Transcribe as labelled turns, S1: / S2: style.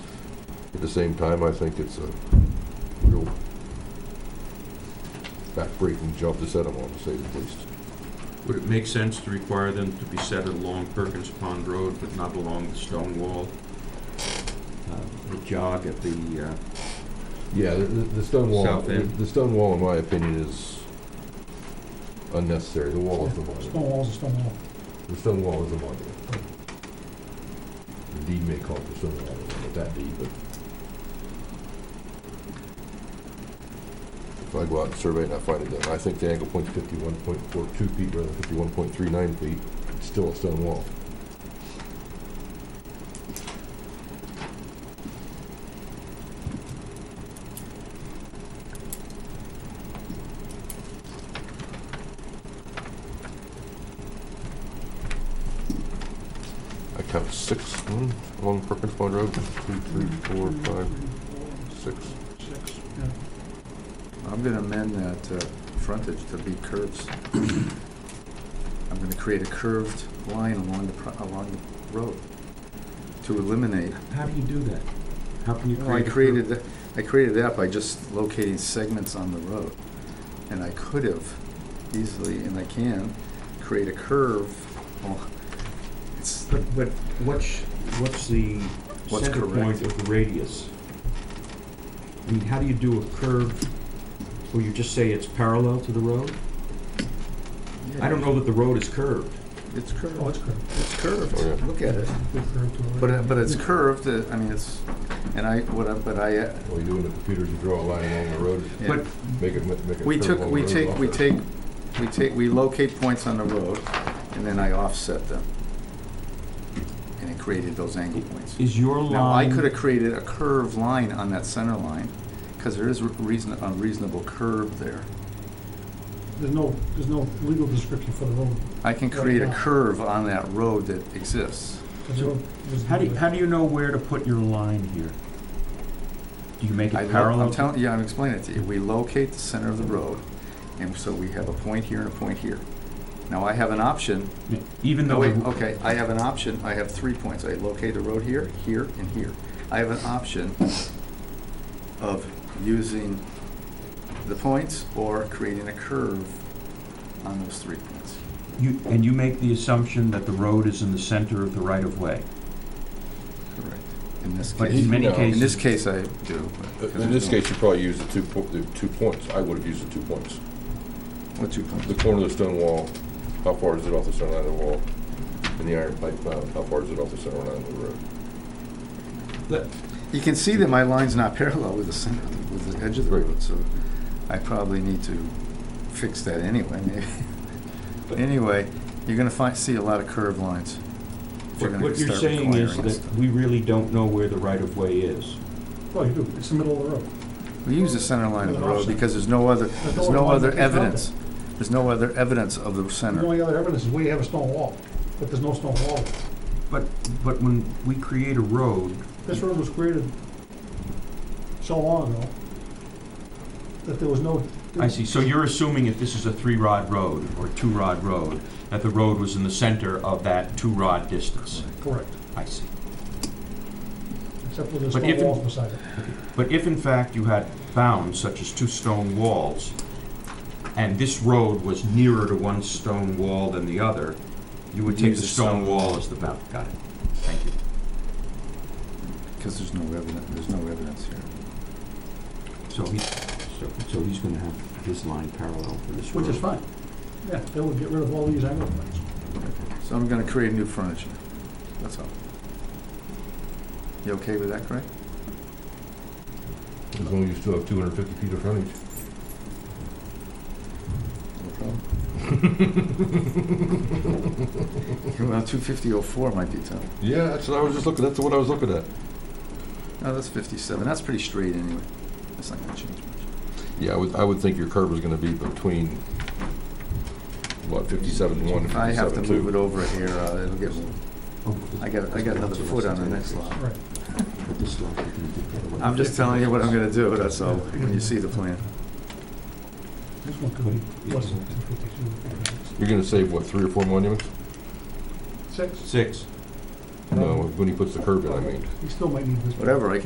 S1: At the same time, I think it's a real backbreaking jump to set them on, to say the least.
S2: Would it make sense to require them to be set along Perkins Pond Road, but not along the stone wall? Uh, The jog at the, uh,
S1: Yeah, the, the the stone wall,
S2: South
S1: the
S2: end.
S1: the stone wall, in my opinion, is unnecessary. The wall is the
S3: Stone
S1: monument.
S3: wall's a stone wall.
S1: The stone wall is a monument. The deed may call it the stone wall, but that deed, but if I go out and survey and I find it, then I think the angle point's fifty-one point four two feet rather than fifty-one point three nine feet, it's still a stone wall. I count six hmm, along Perkins Pond Road, two, three, four, five, six.
S3: Six, yeah.
S4: I'm gonna amend that uh, frontage to be curves. I'm gonna create a curved line along the, pro- along the road to eliminate.
S2: how do you do that? How can you
S4: Well,
S2: create
S4: I
S2: a curve?
S4: created, tha- I created that by just locating segments on the road. And I could have easily, and I can, create a curve. al- It's,
S2: But, but what's, what's the
S4: What's
S2: center
S4: correct?
S2: point of the radius? I mean, how do you do a curve where you just say it's parallel to the road? I don't know that the road is curved.
S4: It's
S3: Oh, it's
S4: curved,
S3: curved.
S4: it's curved,
S1: Oh, yeah.
S4: look at it.
S3: Good curve to it.
S4: But, it- but it's curved, uh, I mean, it's, and I, what I, but I, uh,
S1: All you do in the computer is you draw a line along the road,
S4: yeah.
S2: But
S1: make it, make it.
S4: We took, we take, we take, we take, we locate points on the road, and then I offset them. And it created those angle points.
S2: is your line?
S4: Now, I could have created a curved line on that center line, because there is a reason, a reasonable curve there.
S3: There's no, there's no legal description for the road.
S4: I can create a curve on that road that exists.
S3: The road is-
S2: How do, you- how do you know where to put your line here? Do you make
S4: I
S2: it
S4: lo-
S2: parallel?
S4: I'm telling, yeah, I'm explaining it to you. We locate the center of the road, and so we have a point here and a point here. Now, I have an option
S2: Even
S4: No,
S2: though,
S4: wait,
S2: the-
S4: okay, I have an option, I have three points, I locate the road here, here, and here. I have an option of using the points or creating a curve on those three points.
S2: you, and you make the assumption that the road is in the center of the right-of-way.
S4: Correct. In this
S2: But in
S4: case,
S2: many
S1: No.
S4: in this
S2: cases,
S4: case I do. but-
S1: In this case, you probably use the two, po- the two points. I would have used the two points.
S4: What two points?
S1: The corner of the stone wall, how far is it off the center line of the wall? And the iron pipe mound, how far is it off the center line of the road?
S4: You can see that my line's not parallel with the center, with the edge of the road, so I probably need to fix that anyway, maybe. But anyway, you're gonna find, see a lot of curved lines. if
S2: what
S4: gonna
S2: what you're
S4: start
S2: saying is
S4: requiring
S2: that
S4: stuff.
S2: we really don't know where the right-of-way is.
S3: Well, you do, it's the middle of the road.
S4: We use the center line of the
S3: With an
S4: road
S3: offset.
S4: because there's no other, there's
S3: no
S4: no
S3: other
S4: other
S3: line that's out
S4: evidence. There's no other evidence of the
S3: The
S4: center.
S3: only other evidence is we have a stone wall, but there's no stone wall.
S2: But, but when we create a road,
S3: This road was created so long ago that there was no.
S2: I see, so you're assuming if this is a three-rod road or two-rod road, that the road was in the center of that two-rod distance.
S3: Correct,
S2: I see.
S3: except for the
S2: But if
S3: stone
S2: it-
S3: walls beside it.
S2: But if in fact you had bounds such as two stone walls, and this road was nearer to one stone wall than the other, you would take
S4: Use
S2: the
S4: the
S2: stone
S4: stone
S2: wall as the bound. Got it. Thank you.
S4: Because there's no evidence, there's no evidence here.
S2: So he's, so, so he's gonna have his line parallel for this road.
S3: Which is fine. Yeah, that would get rid of all these angle points.
S4: So I'm gonna create new furniture. That's all. You okay with that, Greg?
S1: As long as you still have two hundred and fifty feet of frontage.
S4: No problem. Well, two fifty oh four might be tough.
S1: Yeah, that's what I was just looking, that's what I was looking at.
S4: No, that's fifty-seven. That's pretty straight anyway. That's not gonna change much.
S1: Yeah, I would, I would think your curve is gonna be between, what, fifty-seven and one,
S4: If I have to
S1: fifty-seven
S4: move
S1: two.
S4: it over here, uh, it'll get moved.
S2: Oh,
S4: I got, I got another foot on the next lot.
S3: Right.
S2: but this lot you can do that way.
S4: I'm just telling you what I'm gonna do, that's all, when you see the plan.
S3: This one could be less than 252.
S1: You're gonna save, what, three or four monuments?
S3: Six?
S2: Six.
S1: No, when he puts the curve in, I mean.
S3: He still might need this. one.
S4: Whatever, I